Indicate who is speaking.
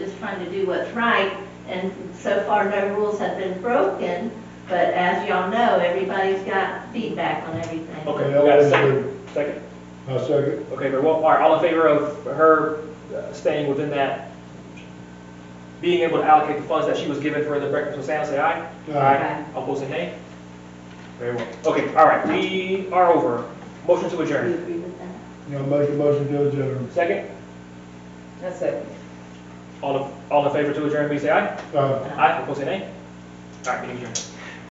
Speaker 1: trying to do what's right, and so far, no rules have been broken, but as y'all know, everybody's got feedback on everything.
Speaker 2: Okay, we
Speaker 3: That
Speaker 2: got a
Speaker 3: was
Speaker 2: second, second,
Speaker 3: I second.
Speaker 2: okay, very well, all right, all in favor of her uh, staying within that, being able to allocate the funds that she was given for the breakfast with Sam, say aye?
Speaker 3: Aye.
Speaker 2: All opposed, say nay? Very well, okay, all right, we are over, motion
Speaker 1: Do
Speaker 2: to
Speaker 1: you
Speaker 2: adjourn,
Speaker 1: agree with that?
Speaker 3: Now make a motion to adjourn.
Speaker 2: second,
Speaker 4: That's it.
Speaker 2: all, in- all in favor to adjourn, please say aye?
Speaker 3: Aye.
Speaker 2: Aye, opposed, say nay? All right, meeting adjourned.